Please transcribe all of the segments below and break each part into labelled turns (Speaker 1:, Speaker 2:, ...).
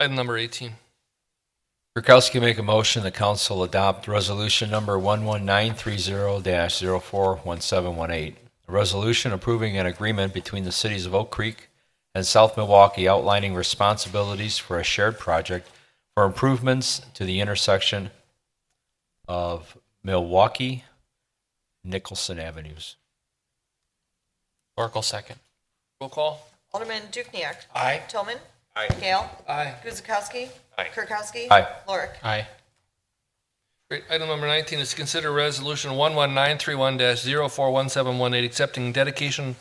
Speaker 1: Item number 18.
Speaker 2: Kirkowski make a motion the council adopt resolution number 11930-041718, a resolution approving an agreement between the cities of Oak Creek and South Milwaukee outlining responsibilities for a shared project for improvements to the intersection of Milwaukee Nicholson Avenues.
Speaker 1: Oracle second. Roll call.
Speaker 3: Alderman Dukniak.
Speaker 1: Aye.
Speaker 3: Tillman. Aye. Gale.
Speaker 1: Aye.
Speaker 3: Guzekowski.
Speaker 1: Aye.
Speaker 3: Kirkowski.
Speaker 2: Aye.
Speaker 3: Lorick.
Speaker 1: Aye. Great. Item number 19 is to consider resolution 11931-041718, accepting dedication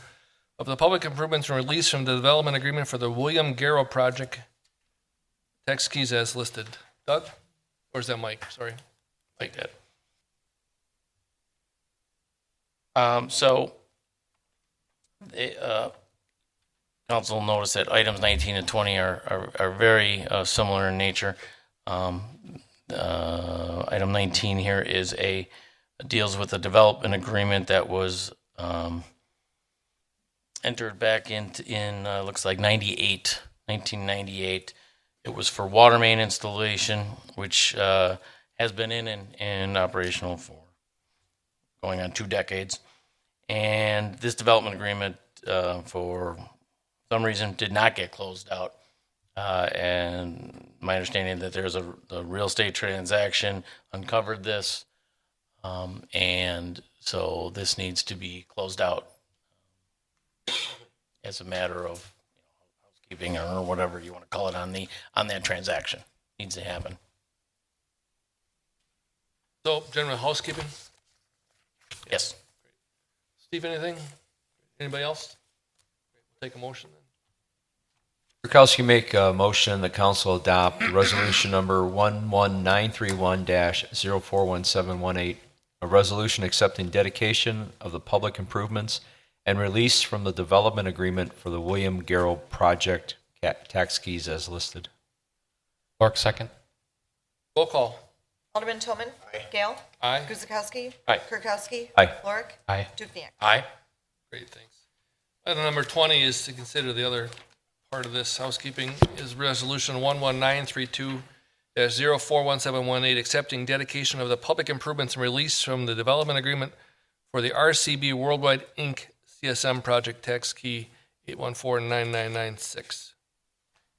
Speaker 1: of the public improvements and release from the development agreement for the William Garrow project. Text keys as listed. Doug? Or is that Mike? Sorry.
Speaker 4: like that. Um, so, the, uh, council noticed that items 19 and 20 are, are, are very uh, similar in nature. Um, uh, item 19 here is a, deals with a development agreement that was, um, entered back in, in, uh, looks like 98, 1998. It was for water main installation, which, uh, has been in and, and operational for going on two decades. And this development agreement, uh, for some reason, did not get closed out. Uh, and my understanding that there's a, a real estate transaction uncovered this. Um, and so this needs to be closed out as a matter of you know, housekeeping or whatever you want to call it on the, on that transaction. Needs to happen.
Speaker 1: So, general housekeeping.
Speaker 4: Yes.
Speaker 1: Steve, anything? Anybody else? Take a motion then.
Speaker 2: Kirkowski make a motion the council adopt resolution number 11931-041718, a resolution accepting dedication of the public improvements and release from the development agreement for the William Garrow project ca- tax keys as listed.
Speaker 5: Clark, second.
Speaker 1: Roll call.
Speaker 3: Alderman Tillman. Aye. Gale.
Speaker 1: Aye.
Speaker 3: Guzekowski.
Speaker 1: Aye.
Speaker 3: Kirkowski.
Speaker 2: Aye.
Speaker 3: Lorick.
Speaker 5: Aye.
Speaker 3: Dukniak.
Speaker 4: Aye.
Speaker 1: Great, thanks. Item number 20 is to consider the other part of this housekeeping is Resolution 11932-041718, accepting dedication of the public improvements and release from the development agreement for the RCB Worldwide Inc. CSM project tax key 8149996.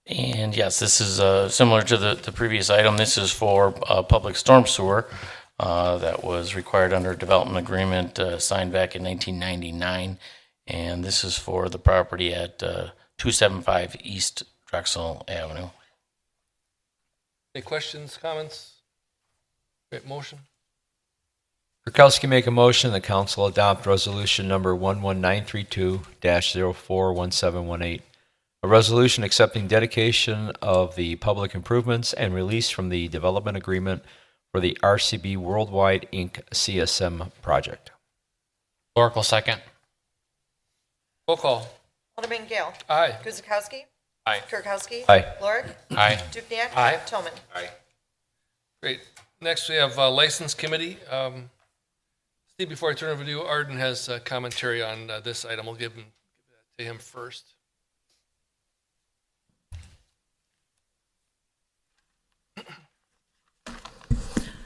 Speaker 4: And yes, this is uh, similar to the, the previous item. This is for uh, public storm sewer uh, that was required under a development agreement uh, signed back in 1999. And this is for the property at uh, 275 East Drexel Avenue.
Speaker 1: Any questions, comments? Great, motion?
Speaker 2: Kirkowski make a motion the council adopt resolution number 11932-041718, a resolution accepting dedication of the public improvements and release from the development agreement for the RCB Worldwide Inc. CSM project.
Speaker 5: Oracle, second.
Speaker 1: Roll call.
Speaker 3: Alderman Gale.
Speaker 1: Aye.
Speaker 3: Guzekowski.
Speaker 1: Aye.
Speaker 3: Kirkowski.
Speaker 2: Aye.
Speaker 3: Lorick.
Speaker 5: Aye.
Speaker 3: Dukniak.
Speaker 1: Aye.
Speaker 3: Tillman.
Speaker 1: Great. Next, we have uh, License Committee. Um, Steve, before I turn it over to you, Arden has uh, commentary on uh, this item. We'll give him, give that to him first.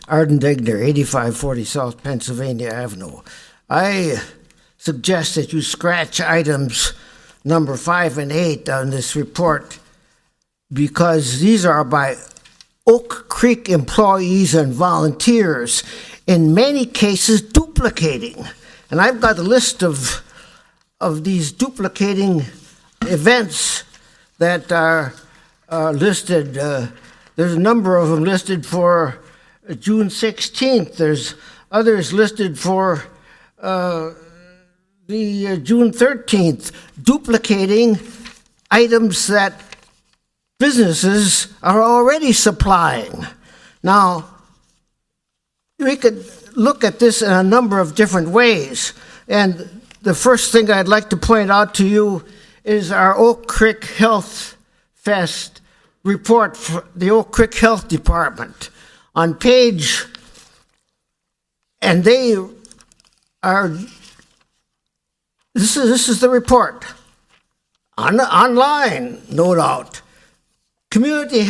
Speaker 6: Arden Degner, 8540 South Pennsylvania Avenue. I suggest that you scratch items number five and eight on this report because these are by Oak Creek employees and volunteers, in many cases duplicating. And I've got a list of, of these duplicating events that are uh, listed. Uh, there's a number of them listed for June 16th. There's others listed for uh, the uh, June 13th, duplicating items that businesses are already supplying. Now, we could look at this in a number of different ways. And the first thing I'd like to point out to you is our Oak Creek Health Fest report for the Oak Creek Health Department. On page, and they are, this is, this is the report. On, online, no doubt. Community